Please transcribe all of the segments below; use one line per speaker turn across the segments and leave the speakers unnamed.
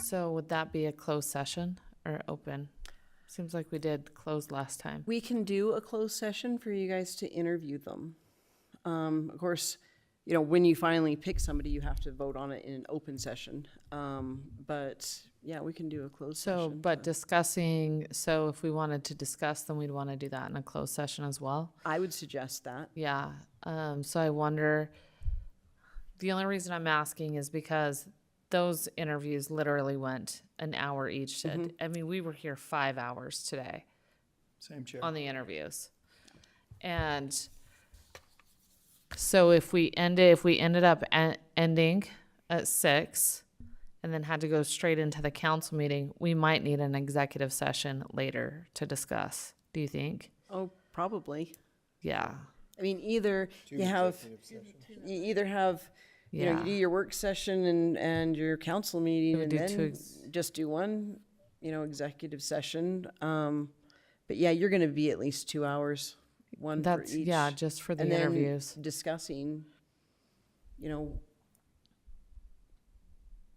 So would that be a closed session or open? Seems like we did close last time.
We can do a closed session for you guys to interview them. Um, of course, you know, when you finally pick somebody, you have to vote on it in an open session. Um, but yeah, we can do a closed
So,
session.
but discussing, so if we wanted to discuss, then we'd want to do that in a closed session as well.
I would suggest that.
Yeah, um, so I wonder, the only reason I'm asking is because those interviews literally went an hour each. Did I mean, we were here five hours today
Mm-hmm. Same chair.
on the interviews. And so if we ended, if we ended up en- ending at six and then had to go straight into the council meeting, we might need an executive session later to discuss. Do you think?
Oh, probably.
Yeah.
I mean, either you have, you either have, you know,
Yeah.
you do your work session and, and your council meeting and
do two
then
ex-
just do one, you know, executive session. Um, but yeah, you're gonna be at least two hours, one for
That's,
each.
yeah, just for the
and then
interviews.
Discussing, you know,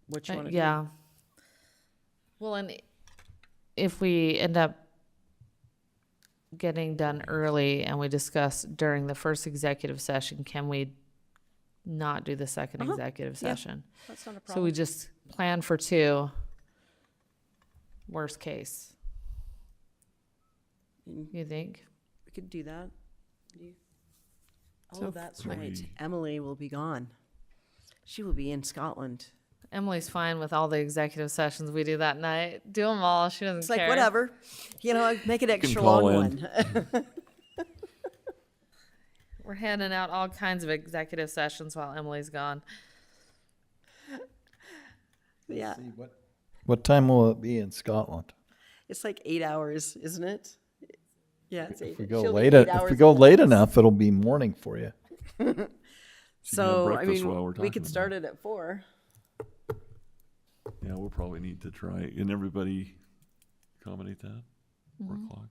what you
Uh,
wanna do.
yeah. Well, and i- if we end up getting done early and we discuss during the first executive session, can we not do the 2nd executive
Uh-huh. yeah.
session?
That's not a
So we
problem.
just plan for two. Worst case.
Mm.
You think?
We could do that. You-
So
Oh, that's right. Emily will be gone. She will be in Scotland.
Emily's fine with all the executive sessions we do that night. Do them all. She doesn't
It's
care.
like, whatever, you know, make it extra long
call
one.
We're handing out all kinds of executive sessions while Emily's gone.
Yeah,
What time will it be in Scotland?
it's like eight hours, isn't it? Yeah, it's eight.
If we go
she'll be
late,
eight
if we
hours
go
in.
late enough, it'll be morning for you.
So, I
breakfast while
mean,
we're
we
talking
could
about
start it at four.
Yeah, we'll probably need to try, and everybody accommodate that, four o'clock.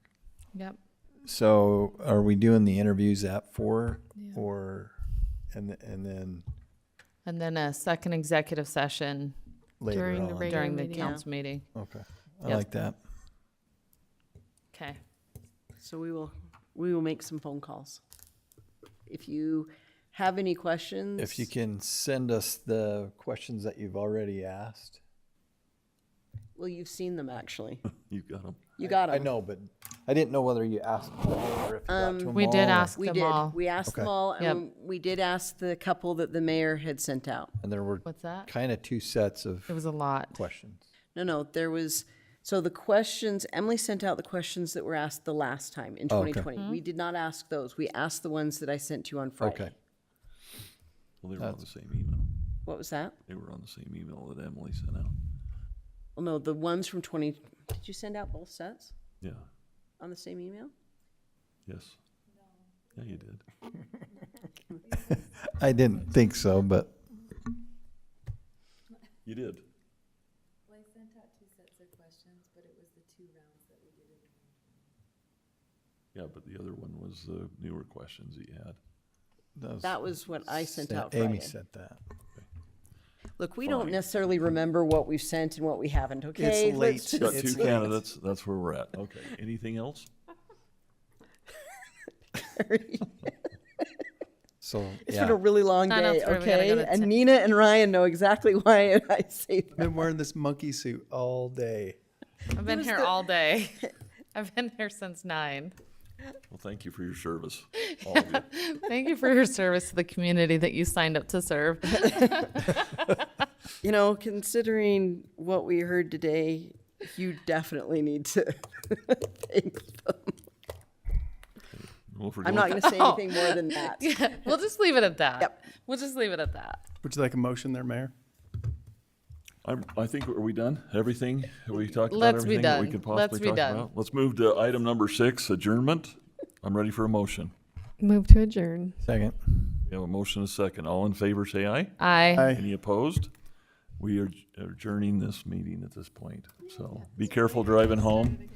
Yep.
So are we doing the interviews at four or, and, th- and then
And then a second executive session
later
During the
on?
reg-
during the
meeting. Yeah.
council meeting.
Okay, I
Yep.
like that.
Okay.
So we will, we will make some phone calls. If you have any questions.
If you can send us the questions that you've already asked.
Well, you've seen them, actually.
You got them.
You got them.
I know, but I didn't know whether you asked them all or if you got to them
We did
all,
ask
Um, We
them
did.
all.
We asked them
Okay.
all,
Yep.
and we did ask the couple that the mayor had sent out.
And there were
What's that?
kind of two sets
It
of
was a lot.
questions.
No, no, there was, so the questions, Emily sent out the questions that were asked the last time in
Oh, okay.
2020.
Mm-hmm.
We did not ask those. We asked the ones that I sent you on Friday.
Okay.
Well, they were on the same email.
What was that?
They were on the same email that Emily sent out.
Well, no, the ones from 20, did you send out both sets
Yeah,
on the same email?
yes. Yeah, you did.
I didn't think so, but
You did.
Well, I sent out two sets of questions, but it was the two rounds that we did in
Yeah, but the other one was the newer questions that you had.
those.
That was what I sent out Friday.
Amy said that.
Look, we don't necessarily remember what we've sent and what we haven't, okay? Let's
late.
Got
just-
It's
two
late.
candidates, that's where we're at. Okay, anything else?
So
It's
yeah.
been a really long
Sign up
day,
for it, we gotta go
okay?
to
And
ten.
Nina and Ryan know exactly why I say that.
been wearing this monkey suit all day.
I've been here all day. I've been here since nine.
Well, thank you for your service, all of you.
Thank you for your service to the community that you signed up to serve.
You know, considering what we heard today, you definitely need to thank them.
Well, if we're
I'm
going-
not gonna say
Oh.
anything more than that.
We'll just leave it at that.
Yep.
We'll just leave it at that.
Would you like a motion there, Mayor?
I'm, I think, are we done? Everything? Have we talked about
Let's be
everything that we
done.
could
Let's be
possibly talk
done.
about? Let's move to item number six, adjournment. I'm ready for a motion.
Move to adjourn.
Second.
We have a motion and a second. All in favor, say aye.
I.
Any opposed? We are adjourning this meeting at this point, so be careful driving home.